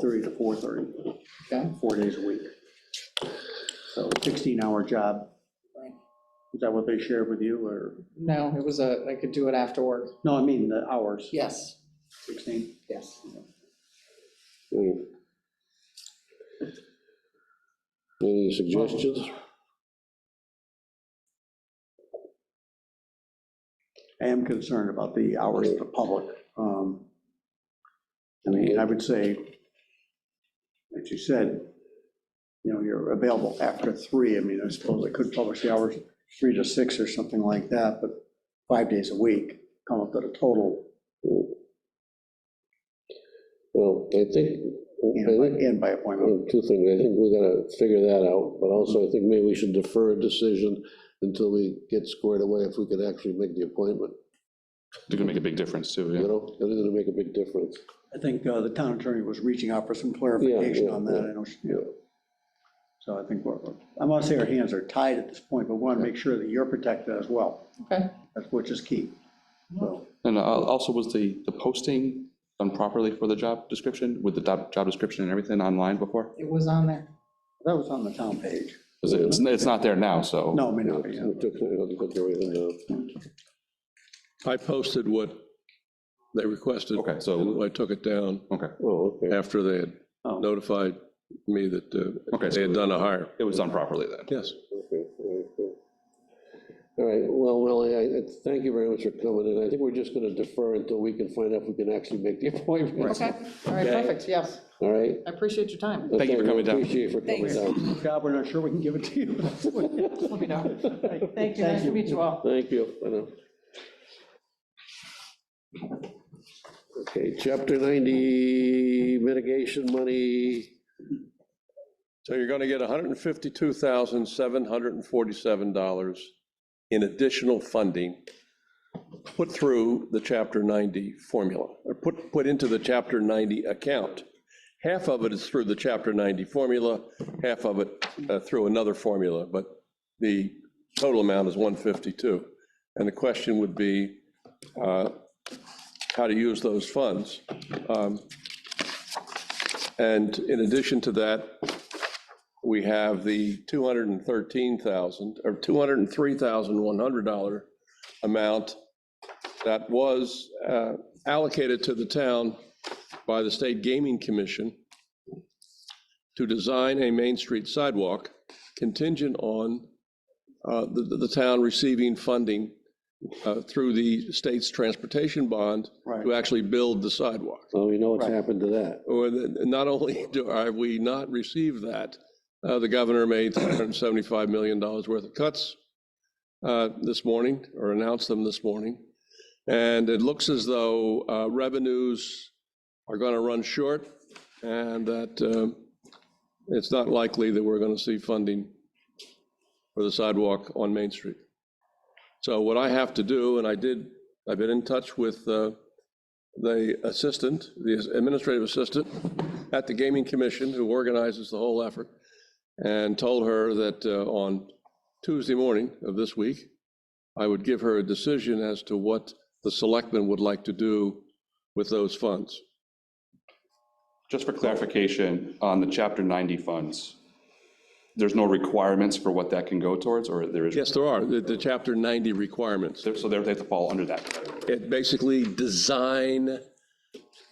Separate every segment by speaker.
Speaker 1: thirty to four thirty,
Speaker 2: Okay,
Speaker 1: four days a week. So sixteen-hour job.
Speaker 2: Right.
Speaker 1: Is that what they shared with you, or,
Speaker 2: no, it was a, I could do it after work,
Speaker 1: no, I mean the hours,
Speaker 2: yes,
Speaker 1: sixteen?
Speaker 2: yes.
Speaker 3: Hmm. Any suggestions?
Speaker 1: I am concerned about the hours of the public. Um, I mean, I would say, as you said, you know, you're available after three. I mean, I suppose I could publish the hours, three to six or something like that, but five days a week, come up with a total,
Speaker 3: Well, I think,
Speaker 1: you
Speaker 3: I
Speaker 1: know,
Speaker 3: think,
Speaker 1: and by appointment.
Speaker 3: well, two things, I think we gotta figure that out, but also I think maybe we should defer a decision until we get squared away if we can actually make the appointment,
Speaker 4: It's gonna make a big difference too,
Speaker 3: you
Speaker 4: yeah.
Speaker 3: know? That is gonna make a big difference.
Speaker 1: I think uh, the town attorney was reaching out for some clarification
Speaker 3: yeah,
Speaker 1: on that,
Speaker 3: yeah,
Speaker 1: I know, she- yeah. So I think we're, I'm not saying our hands are tied at this point, but want to make sure that you're protected as well,
Speaker 2: Okay,
Speaker 1: that's which is key. So,
Speaker 4: And uh, also, was the, the posting done properly for the job description, with the job, job description and everything online before?
Speaker 2: it was on there,
Speaker 1: that was on the town page.
Speaker 4: 'Cause it's, it's not there now, so.
Speaker 1: No, it may not be.
Speaker 3: We took- we took everything down.
Speaker 5: I posted what they requested.
Speaker 4: Okay, so-
Speaker 5: and I took it down
Speaker 4: Okay,
Speaker 3: Oh, okay.
Speaker 5: after they had
Speaker 1: Oh.
Speaker 5: notified me that uh,
Speaker 4: Okay, so-
Speaker 5: they had done a hire.
Speaker 4: it was done properly then.
Speaker 5: Yes.
Speaker 3: Okay, all right, good. All right, well, Willie, I, I thank you very much for coming in. I think we're just gonna defer until we can find out if we can actually make the appointment.
Speaker 2: okay, all right, perfect, yes,
Speaker 3: All right?
Speaker 2: I appreciate your time,
Speaker 4: Thank you
Speaker 3: Okay,
Speaker 4: for
Speaker 3: we
Speaker 4: coming down.
Speaker 3: Appreciate you for coming
Speaker 2: Thanks.
Speaker 3: down.
Speaker 1: Job, we're not sure we can give it to you.
Speaker 2: let me know. Thank you, nice to meet you all.
Speaker 3: Thank you, I know. Okay, chapter ninety mitigation money,
Speaker 5: So you're going to get $152,747 in additional funding put through the Chapter 90 formula, or put, put into the Chapter 90 account. Half of it is through the Chapter 90 formula, half of it uh, through another formula, but the total amount is 152. And the question would be uh, how to use those funds. Um, And in addition to that, we have the 213,000, or $203,100 amount that was uh, allocated to the town by the State Gaming Commission to design a Main Street sidewalk contingent on uh, the, the town receiving funding uh, through the state's transportation bond
Speaker 1: Right.
Speaker 5: to actually build the sidewalk.
Speaker 3: so we know what's
Speaker 1: Right.
Speaker 3: happened to that.
Speaker 5: Well, th- not only do, have we not received that, uh, the governor made $375 million worth of cuts uh, this morning, or announced them this morning. And it looks as though uh, revenues are going to run short, and that um, it's not likely that we're going to see funding for the sidewalk on Main Street. So what I have to do, and I did, I've been in touch with uh, the assistant, the administrative assistant at the Gaming Commission, who organizes the whole effort, and told her that uh, on Tuesday morning of this week, I would give her a decision as to what the selectmen would like to do with those funds.
Speaker 4: Just for clarification, on the chapter ninety funds, there's no requirements for what that can go towards, or there is?
Speaker 5: Yes, there are, the, the Chapter 90 requirements.
Speaker 4: There- So they have to fall under that category.
Speaker 5: It basically design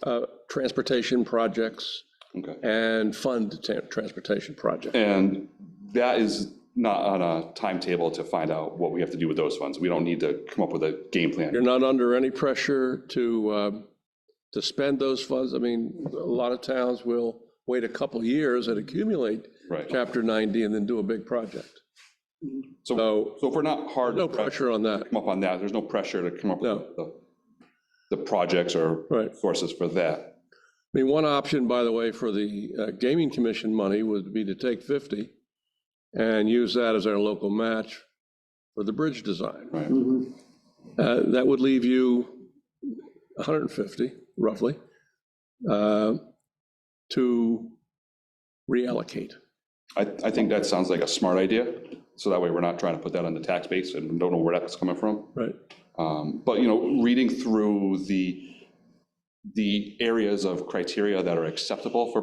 Speaker 5: uh, transportation projects
Speaker 4: Okay.
Speaker 5: and fund ta- transportation projects.
Speaker 4: And that is not on a timetable to find out what we have to do with those funds. We don't need to come up with a game plan.
Speaker 5: You're not under any pressure to, um, to spend those funds. I mean, a lot of towns will wait a couple years and accumulate
Speaker 4: Right.
Speaker 5: Chapter 90 and then do a big project.
Speaker 4: So, so if we're not hard.
Speaker 5: No pressure on that.
Speaker 4: come up on that. There's no pressure to come up
Speaker 5: No.
Speaker 4: with the, the projects or
Speaker 5: Right.
Speaker 4: sources for that.
Speaker 5: I mean, one option, by the way, for the uh, gaming commission money would be to take 50 and use that as our local match for the bridge design.
Speaker 4: Right.
Speaker 5: Uh, That would leave you 150 roughly uh, to reallocate.
Speaker 4: I, I think that sounds like a smart idea. So that way we're not trying to put that on the tax base and don't know where that's coming from.
Speaker 5: Right.
Speaker 4: Um, But, you know, reading through the, the areas of criteria that are acceptable for